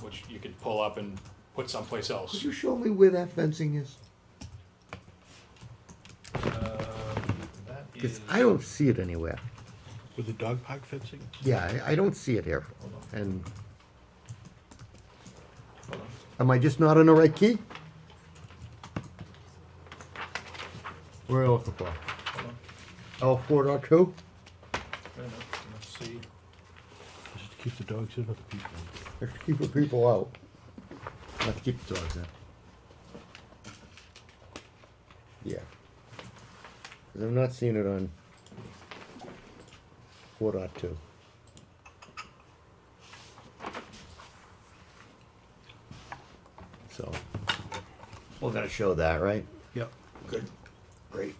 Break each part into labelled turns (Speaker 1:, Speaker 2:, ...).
Speaker 1: which you could pull up and put someplace
Speaker 2: Could
Speaker 1: else.
Speaker 2: you show me where that fencing is?
Speaker 1: Um, that
Speaker 2: Because
Speaker 1: is-
Speaker 2: I don't see it anywhere.
Speaker 3: With the dog park fencing?
Speaker 2: Yeah, I, I don't see it here. And
Speaker 1: hold on.
Speaker 2: am I just not on the right key? What are you looking for?
Speaker 1: Hold on.
Speaker 2: L four dot two?
Speaker 1: Wait a minute, Let's see.
Speaker 3: Just to keep the dogs in or the people in?
Speaker 2: Let's keep the people out. Let's keep the dogs in. Yeah. 'Cause I'm not seeing it on four dot two. So, we're gonna show that, right?
Speaker 3: Yep.
Speaker 2: Good, great.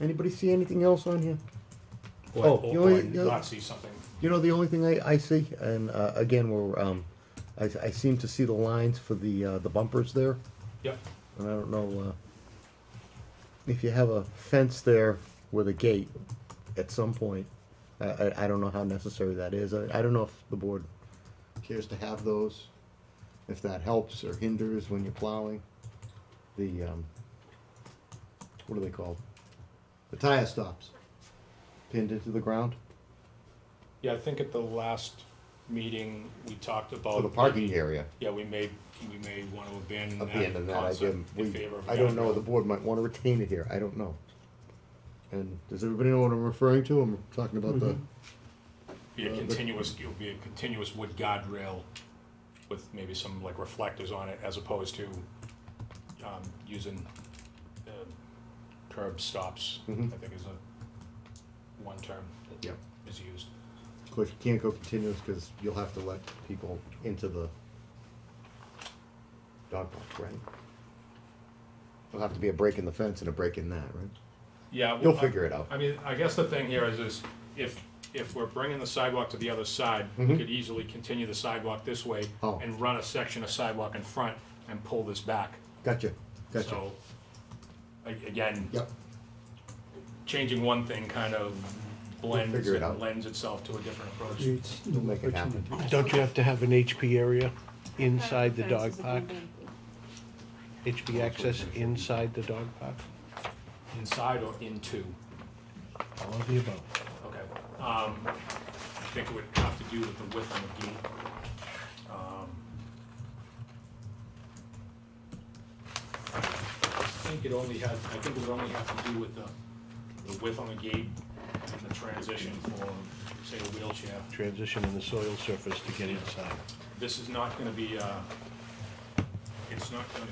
Speaker 2: Anybody see anything else on here?
Speaker 1: Or-
Speaker 2: Oh,
Speaker 1: or-
Speaker 2: you
Speaker 1: or
Speaker 2: only-
Speaker 1: I did
Speaker 2: you-
Speaker 1: Not see something.
Speaker 2: You know, the only thing I, I see, and uh, again, we're, um, I, I seem to see the lines for the, uh, the bumpers there,
Speaker 1: Yep.
Speaker 2: and I don't know, uh, if you have a fence there with a gate at some point, I, I, I don't know how necessary that is. I, I don't know if the board cares to have those, if that helps or hinders when you're plowing. The, um, what are they called? The tire stops pinned into the ground
Speaker 1: Yeah, I think at the last meeting, we talked about.
Speaker 2: for the parking
Speaker 1: maybe-
Speaker 2: area.
Speaker 1: Yeah, we may, we may want to abandon
Speaker 2: at the end
Speaker 1: that
Speaker 2: of that, I
Speaker 1: concept
Speaker 2: give,
Speaker 1: in
Speaker 2: we,
Speaker 1: favor of.
Speaker 2: I don't know,
Speaker 1: guardrail.
Speaker 2: the board might wanna retain it here, I don't know. And does everybody know what I'm referring to? I'm talking about the,
Speaker 1: Be a
Speaker 2: uh, the-
Speaker 1: continuous, it would be a continuous wood guardrail with maybe some like reflectors on it as opposed to, um, using, uh, curb stops, I
Speaker 2: Mhm.
Speaker 1: think is a, one term that
Speaker 2: Yep.
Speaker 1: is used.
Speaker 2: of course, you can't go continuous, cause you'll have to let people into the dog park, right? There'll have to be a break in the fence and a break in that, right?
Speaker 1: Yeah.
Speaker 2: You'll
Speaker 1: well, I-
Speaker 2: figure it out.
Speaker 1: I mean, I guess the thing here is, is if, if we're bringing the sidewalk to the other side, we could easily continue the sidewalk this way
Speaker 2: Mm-hmm. Oh.
Speaker 1: and run a section of sidewalk in front and pull this back.
Speaker 2: Gotcha, gotcha.
Speaker 1: So, a- again,
Speaker 2: Yep,
Speaker 1: changing one thing kind of blends,
Speaker 2: figure it out.
Speaker 1: lends itself to a different
Speaker 3: Mm.
Speaker 1: approach.
Speaker 4: Creates
Speaker 2: we'll
Speaker 4: new
Speaker 2: make it happen.
Speaker 4: opportunities.
Speaker 3: Don't you have to have an HP area inside the
Speaker 5: Fence is
Speaker 3: dog
Speaker 5: a
Speaker 3: park?
Speaker 5: building.
Speaker 3: HP access inside the dog park?
Speaker 1: Inside or into?
Speaker 3: All of the above.
Speaker 1: Okay, um, I think it would have to do with the width of the gate. Um, I think it only has, I think it would only have to do with the, the width on the gate and the transition for, say, a wheelchair.
Speaker 3: Transition in the soil surface to get inside.
Speaker 1: This is not gonna be, uh, it's not gonna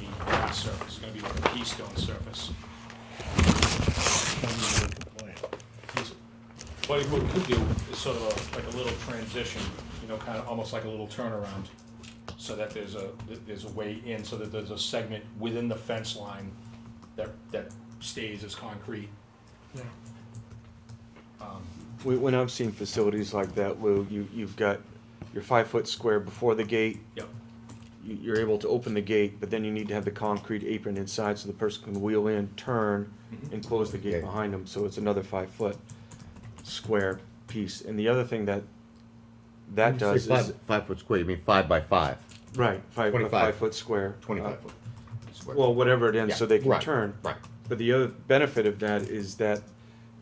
Speaker 1: be a grass surface, it's gonna be like a keystone surface. What we could do is sort of a- like a little transition, you know, kind of almost like a little turnaround, so that there's a, that there's a way in, so that there's a segment within the fence line that, that stays as concrete.
Speaker 6: When, when I've seen facilities like that, Lou, you, you've got your five foot square before the gate.
Speaker 1: Yep.
Speaker 6: You, you're able to open the gate, but then you need to have the concrete apron inside so the person can wheel in, turn,
Speaker 2: Mm-hmm.
Speaker 6: and close the
Speaker 2: Okay.
Speaker 6: gate behind them. So it's another five foot square piece. And the other thing that that
Speaker 2: Say
Speaker 6: does is
Speaker 2: Five, five foot square, you mean five by five,
Speaker 6: right five a
Speaker 2: 25.
Speaker 6: five foot square, uh,
Speaker 2: twenty-five foot. square.
Speaker 6: Well, whatever it is, so
Speaker 2: Yeah,
Speaker 6: they can
Speaker 2: right,
Speaker 6: turn.
Speaker 2: Right,
Speaker 6: But the other benefit of that is that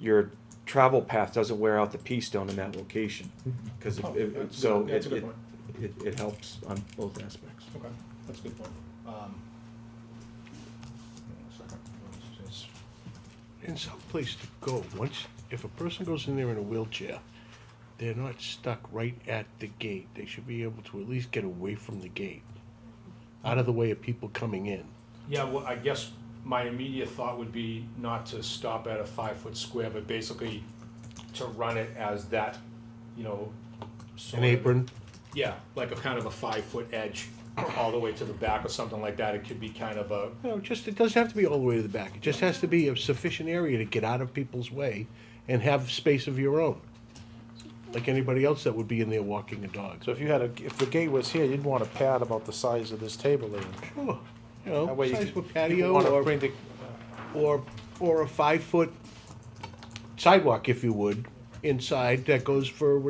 Speaker 6: your travel path doesn't wear out the P stone in that location. Because
Speaker 1: Oh,
Speaker 6: it,
Speaker 1: that's a
Speaker 6: so
Speaker 1: good- that's
Speaker 6: it,
Speaker 1: a good
Speaker 6: it,
Speaker 1: point.
Speaker 6: it, it helps on both aspects.
Speaker 1: Okay, that's a good point. Um, hang on a second. What is this?
Speaker 3: And someplace to go, once, if a person goes in there in a wheelchair, they're not stuck right at the gate. They should be able to at least get away from the gate, out of the way of people coming in.
Speaker 1: Yeah, well, I guess my immediate thought would be not to stop at a five-foot square, but basically to run it as that, you know. sort
Speaker 3: An
Speaker 1: of-
Speaker 3: apron,
Speaker 1: Yeah, like a kind of a five-foot edge all the way to the back or something like that. It could be kind of a,
Speaker 3: No, just, it doesn't have to be all the way to the back. It just has to be a sufficient area to get out of people's way and have space of your own. Like anybody else that would be in there walking a dog.
Speaker 7: So if you had a, if the gate was here, you'd want a pad about the size of this table there.
Speaker 3: Sure, you
Speaker 7: That
Speaker 3: know,
Speaker 7: way you
Speaker 3: size
Speaker 7: could-
Speaker 3: of a
Speaker 7: you
Speaker 3: patio
Speaker 7: wanna
Speaker 3: or,
Speaker 7: bring the-
Speaker 3: or, or a five-foot sidewalk, if you would, inside that goes for